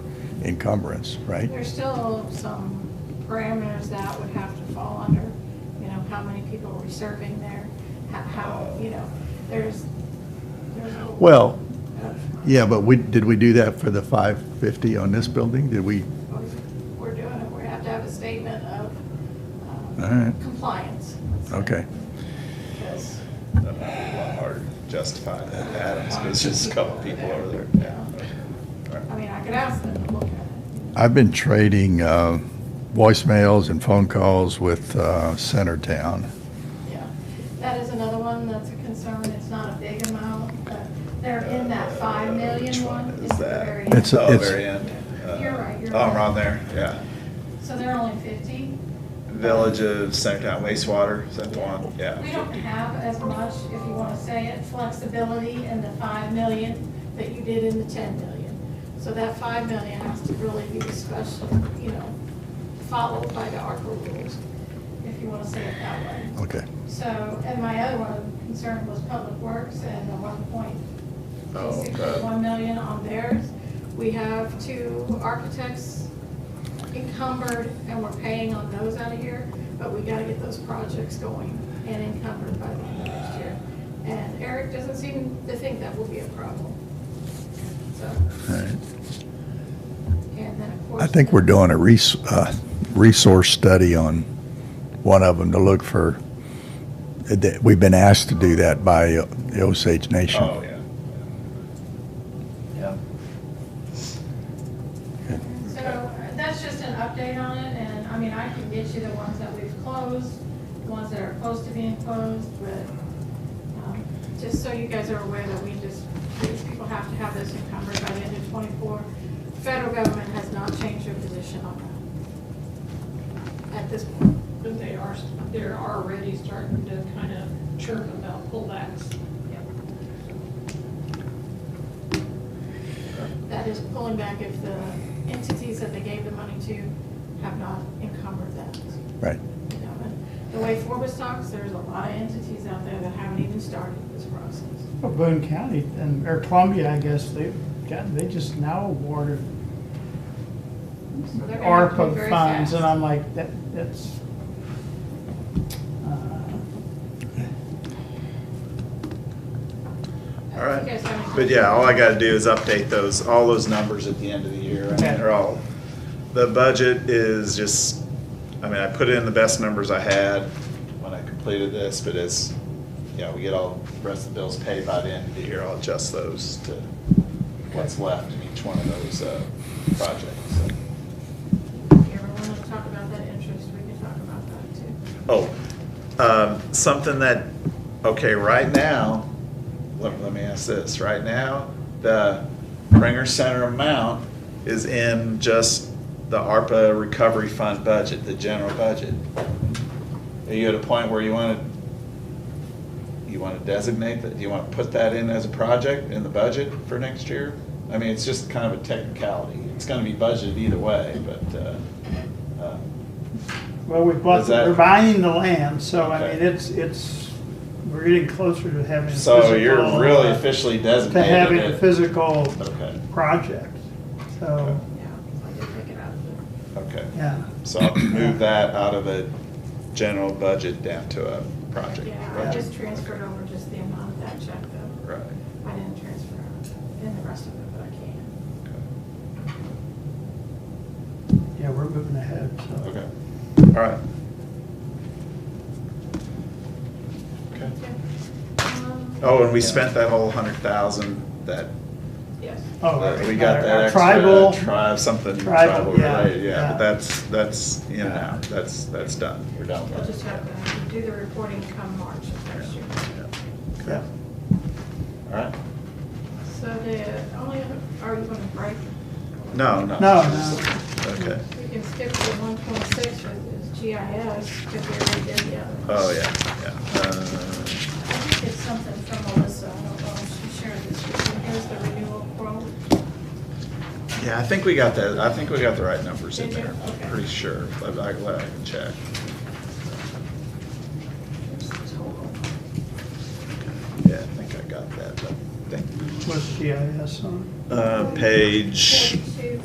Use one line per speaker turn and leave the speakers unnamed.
encumbrance, right?
There's still some parameters that would have to fall under, you know, how many people are we serving there? How- How, you know, there's, there's. a-
Well, yeah, but we, did we do that for the 550 on this building? Did we,
We're doing it, we have to have a statement of um,
all right,
compliance. let's say,
okay.
Because,
That'd be a lot harder to justify than Adams, but it's just a couple people over there. Yeah, okay. All right.
I mean, I could ask them to look at it.
I've been trading uh, voicemails and phone calls with uh, Centertown.
Yeah, that is another one that's a concern, it's not a big amount, but they're in that five million
Which one
one.
is
It's the
that?
very
It's
end.
a-
Oh, very end. Uh,
You're right, you're
Oh,
right.
around there, yeah.
So they're only fifty.
Village of Centertown wastewater, is that the one? Yeah.
We don't have as much, if you wanna say it, flexibility in the five million that you did in the ten million. So that five million has to really be discussed, you know, followed by the ARPA rules, if you wanna say it that way.
Okay.
So, and my other one concern was Public Works and the one point,
Oh,
basically
okay.
one million on theirs. We have two architects encumbered and we're paying on those out of here, but we gotta get those projects going and encumbered by the end of next year. And Eric doesn't seem to think that will be a problem. So,
All right.
and then of course.
I think we're doing a res, uh, resource study on one of them to look for, that- we've been asked to do that by uh, the Osage Nation.
Oh, yeah. Yeah.
So uh, that's just an update on it, and I mean, I can get you the ones that we've closed, the ones that are close to being closed, but um, just so you guys are aware that we just, these people have to have this encumbered by the end of twenty-four. Federal government has not changed their position on that at this point.
But they are, they're already starting to kind of chirp about pullbacks.
That is pulling back if the entities that they gave the money to have not encumbered that.
Right.
You know, but The way Forbes talks, there's a lot of entities out there that haven't even started this process.
Well, Boone County and, or Columbia, I guess, they've got, they just now awarded
So they're gonna have to be
ARPA
very
funds, and
fast.
I'm like, that, that's. uh,
All right.
You guys have any-
But yeah, all I gotta do is update those, all those numbers at the end of the year. I mean, they're all, the budget is just, I mean, I put in the best numbers I had when I completed this, but as, yeah, we get all, the rest of the bills paid by the end of the year, I'll adjust those to what's left in each one of those, uh, projects, so.
If you ever want to talk about that interest, we can talk about that too.
Oh, um, something that, okay, right now, let, let me ask this, right now, the Ringer Center amount is in just the ARPA recovery fund budget, the general budget. Are you at a point where you wanna, you wanna designate that, do you wanna put that in as a project in the budget for next year? I mean, it's just kind of a technicality, it's gonna be budgeted either way, but, uh, uh,
Well, we bought,
Is that-
we're buying the land, so I
Okay.
mean, it's, it's, we're getting closer to having. a
So you're
physical,
really
uh,
officially
To having a
designated it?
physical
Okay,
project, so,
Okay.
Yeah, I did pick it up.
okay.
yeah.
So I'll move that out of a general budget down to a project.
Yeah, I
budget.
just transferred over just the amount of that check though.
Right.
I didn't transfer in the rest of it, but I can.
Okay.
Yeah, we're moving ahead, so.
Okay, all right. Okay.
Okay. Um,
Oh, and we spent that whole hundred thousand, that,
Yes.
Oh,
that- we got that extra.
Tribal,
Tribe, something
Tribal,
tribal
yeah,
related, yeah,
yeah.
but that's, that's in and
Yeah.
out, that's, that's done, we're done
We'll
with
just
that.
have to do the reporting come March of next year.
Yeah.
yeah.
Okay, all right.
So the only, other- are you going to break?
No, no.
No, no.
Okay.
We can skip to one point six, which is GIS, because we already did the other. one.
Oh, yeah, yeah. Uh,
I think it's something from Melissa, I don't know if she shared this with you, here's the renewal quote.
Yeah, I think we got that, I think we got the right numbers in
Did you?
there,
Okay.
I'm pretty sure. I, I I can check.
Here's the total.
Yeah, I think I got that, but, thank you.
With GIS on it.
Uh, page
Forty-two